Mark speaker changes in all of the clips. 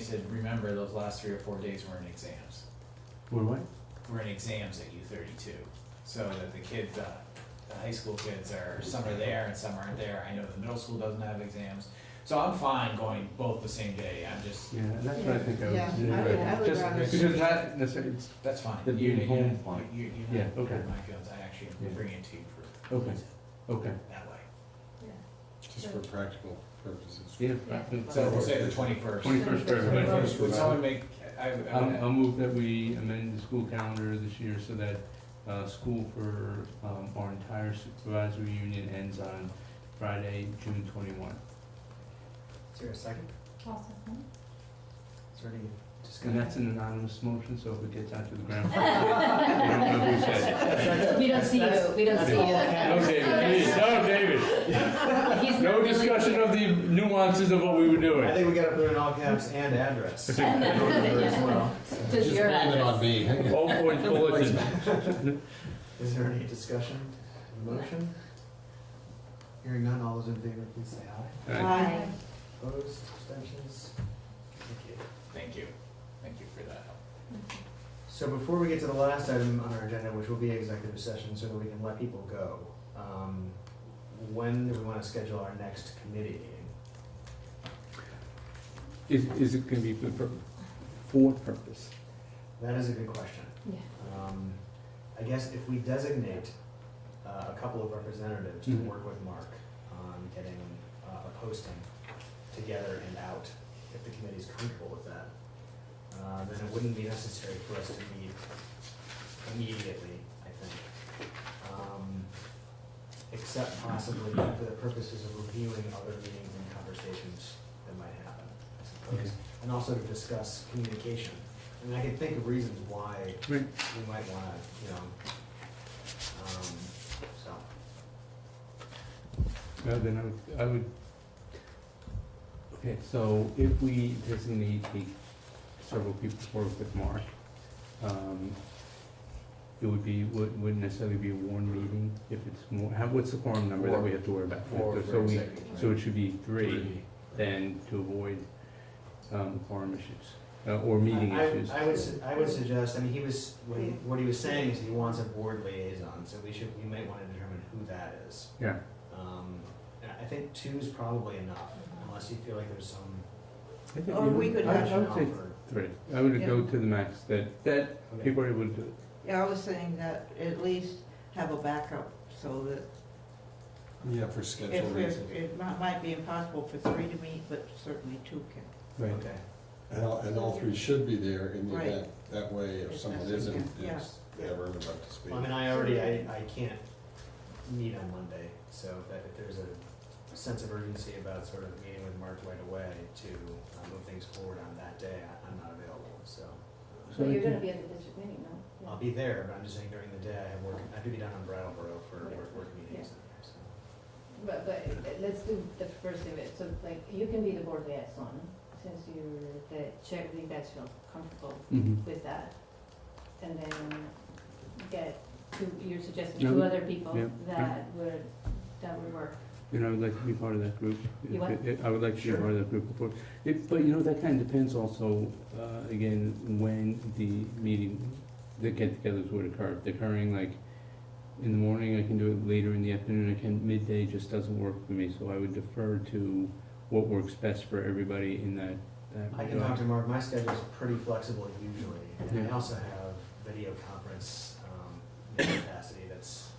Speaker 1: said, remember, those last three or four days were in exams,
Speaker 2: One way?
Speaker 1: were in exams at U thirty-two. So that the kids, uh, the high school kids are, some are there and some aren't there, I know the middle school doesn't have exams. So I'm fine going both the same day, I'm just,
Speaker 2: Yeah, that's what I think I
Speaker 3: Yeah,
Speaker 2: would do.
Speaker 3: I would- I would
Speaker 2: Just
Speaker 3: rather-
Speaker 2: Because that, that's, it's,
Speaker 1: that's fine.
Speaker 2: It'd be
Speaker 1: You- you-
Speaker 2: home fine.
Speaker 1: You, you,
Speaker 2: Yeah,
Speaker 1: you know,
Speaker 2: okay.
Speaker 1: my guns, I actually
Speaker 2: Yeah.
Speaker 1: bring it to you for.
Speaker 2: Okay. okay,
Speaker 1: That way.
Speaker 4: Just for practical purposes.
Speaker 2: yeah.
Speaker 3: Yeah.
Speaker 2: that's-
Speaker 1: So we'll say the twenty-first.
Speaker 2: 21st for everybody.
Speaker 1: Would someone make, I, I
Speaker 2: I'll, I'll
Speaker 1: would,
Speaker 2: move that we amend the school calendar this year so that, uh, school for, um, our entire supervisory union ends on Friday, June twenty-one.
Speaker 5: Is there a second? Is there any
Speaker 2: And that's
Speaker 5: discussion?
Speaker 2: an anonymous motion, so if it gets out to the ground, I don't know who said
Speaker 6: We don't see you, we don't see
Speaker 2: it. No,
Speaker 6: you.
Speaker 2: David, please, no, David.
Speaker 6: He's not
Speaker 2: No
Speaker 6: really-
Speaker 2: discussion of the nuances of what we were
Speaker 5: I
Speaker 2: doing.
Speaker 5: think we gotta put in all caps and address. As
Speaker 6: Yeah.
Speaker 5: well.
Speaker 6: Just
Speaker 4: Just
Speaker 6: your
Speaker 4: blame it on
Speaker 6: address.
Speaker 4: me.
Speaker 2: All points bulletin.
Speaker 5: Is there any discussion, motion? Hearing none, all those in favor, please say aye.
Speaker 2: All right.
Speaker 3: Aye.
Speaker 5: Opposed, abstentions? Thank you.
Speaker 1: thank you, thank you for that help.
Speaker 5: So before we get to the last item on our agenda, which will be executive session, so that we can let people go, um, when do we wanna schedule our next committee meeting?
Speaker 2: Is, is it gonna be for, pur- for purpose?
Speaker 5: That is a good question.
Speaker 6: Yeah.
Speaker 5: Um, I guess if we designate uh, a couple of representatives to
Speaker 2: Mhm.
Speaker 5: work with Mark on getting uh, a posting together and out, if the committee's comfortable with that, uh, then it wouldn't be necessary for us to meet immediately, I think. Um, Except possibly for the purposes of reviewing other meetings and conversations that might happen, I
Speaker 2: Okay.
Speaker 5: suppose. And also to discuss communication. I mean, I can think of reasons why
Speaker 2: Right.
Speaker 5: we might wanna, you know, um, so.
Speaker 2: No, Uh, then I would, I would, okay, so if we designate a, several people to work with Mark, um, it would be, would- wouldn't necessarily be a warned meeting if it's more, how, what's the quorum number that we have to worry about?
Speaker 1: Or
Speaker 2: So
Speaker 1: for
Speaker 2: we,
Speaker 1: executive.
Speaker 2: so it should be three, then to avoid, um, quorum issues, uh, or meeting
Speaker 5: I- I-
Speaker 2: issues.
Speaker 5: I would, su- I would suggest, I mean, he was, what he, what he was saying is he wants a board liaison, so we should, we might wanna determine who that is.
Speaker 2: Yeah.
Speaker 5: Um, and I think two's probably enough, unless you feel like there's some
Speaker 2: I think
Speaker 3: Or we could have-
Speaker 2: I
Speaker 5: rationale
Speaker 2: would say
Speaker 5: for.
Speaker 2: three, I would
Speaker 3: Yeah.
Speaker 2: go to the max that, that
Speaker 5: okay.
Speaker 2: people are able to do it.
Speaker 3: Yeah, I was saying that at least have a backup so that
Speaker 4: Yeah, for schedule
Speaker 3: if, there's-
Speaker 4: reasons.
Speaker 3: it mi- might be impossible for three to meet, but certainly two can.
Speaker 2: Right.
Speaker 5: Okay,
Speaker 4: And all, and all three should be there in the
Speaker 3: Right.
Speaker 4: event. That way, if
Speaker 3: If
Speaker 4: someone
Speaker 3: that's-
Speaker 4: isn't,
Speaker 3: yeah.
Speaker 4: it's, they have everyone up to speed.
Speaker 5: well, I mean, I already, I, I can't meet on Monday, so if that, if there's a sense of urgency about sort of meeting with Mark right away to uh, move things forward on that day, I, I'm not available, so.
Speaker 2: So
Speaker 6: But
Speaker 2: I
Speaker 6: you're gonna
Speaker 2: think-
Speaker 6: be at the district meeting, no?
Speaker 5: I'll be there, but I'm just saying during the day, I have work, I have to be down in Brattleboro for work, work meetings. so.
Speaker 6: But, but let's do the first of it, so like, you can be the board liaison, since you're the chair, you guys feel comfortable
Speaker 2: Mhm.
Speaker 6: with that. And then get two, you're suggesting
Speaker 2: Yeah,
Speaker 6: two
Speaker 2: we-
Speaker 6: other people
Speaker 2: yeah,
Speaker 6: that would, that would work.
Speaker 2: And I would like to be part of that group.
Speaker 6: You
Speaker 2: If it- I would like to be part of that group before. It, but you know, that kind of depends also, uh, again, when the meeting, the get-togethers would occur. If they're occurring like in the morning, I can do it later in the afternoon, I can, midday just doesn't work for me. So I would defer to what works best for everybody in that, that
Speaker 5: I can talk
Speaker 2: regard.
Speaker 5: to Mark, my schedule's pretty flexible usually, and I
Speaker 2: Yeah.
Speaker 5: also have video conference, um, you know, capacity that's,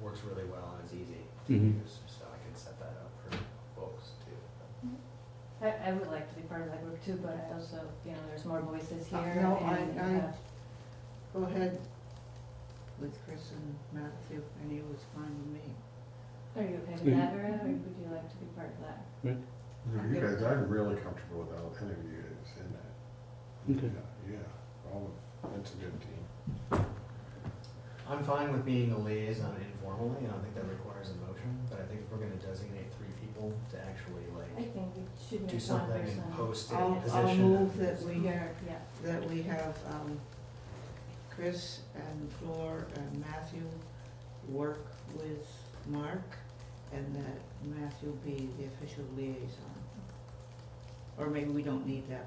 Speaker 5: works really well and is easy to
Speaker 2: Mhm.
Speaker 5: use, so I can set that up for folks too.
Speaker 6: I, I would like to be part of that group too, but I also, you know, there's more voices
Speaker 3: Uh,
Speaker 6: here.
Speaker 3: no, I-
Speaker 6: and,
Speaker 3: I-
Speaker 6: uh,
Speaker 3: Go ahead with Chris and Matthew, and he was fine with me.
Speaker 6: Are you okay
Speaker 2: Mhm.
Speaker 6: with that, Vera, or would you like to be part of that?
Speaker 4: No, You guys, I'm really comfortable without any of you guys in that.
Speaker 2: Okay.
Speaker 4: Yeah, Yeah, all of, that's a good team.
Speaker 5: I'm fine with being a liaison informally, I don't think that requires a motion, but I think if we're gonna designate three people to actually
Speaker 6: I
Speaker 5: like
Speaker 6: think we should make
Speaker 5: do
Speaker 6: one
Speaker 5: something
Speaker 6: person.
Speaker 5: and post it in
Speaker 3: I'll,
Speaker 5: a
Speaker 3: I'll
Speaker 5: position.
Speaker 3: move that we,
Speaker 6: Here, yeah.
Speaker 3: that we have, um, Chris and Flor and Matthew work with Mark, and that Matthew be the official liaison. Or maybe we don't need that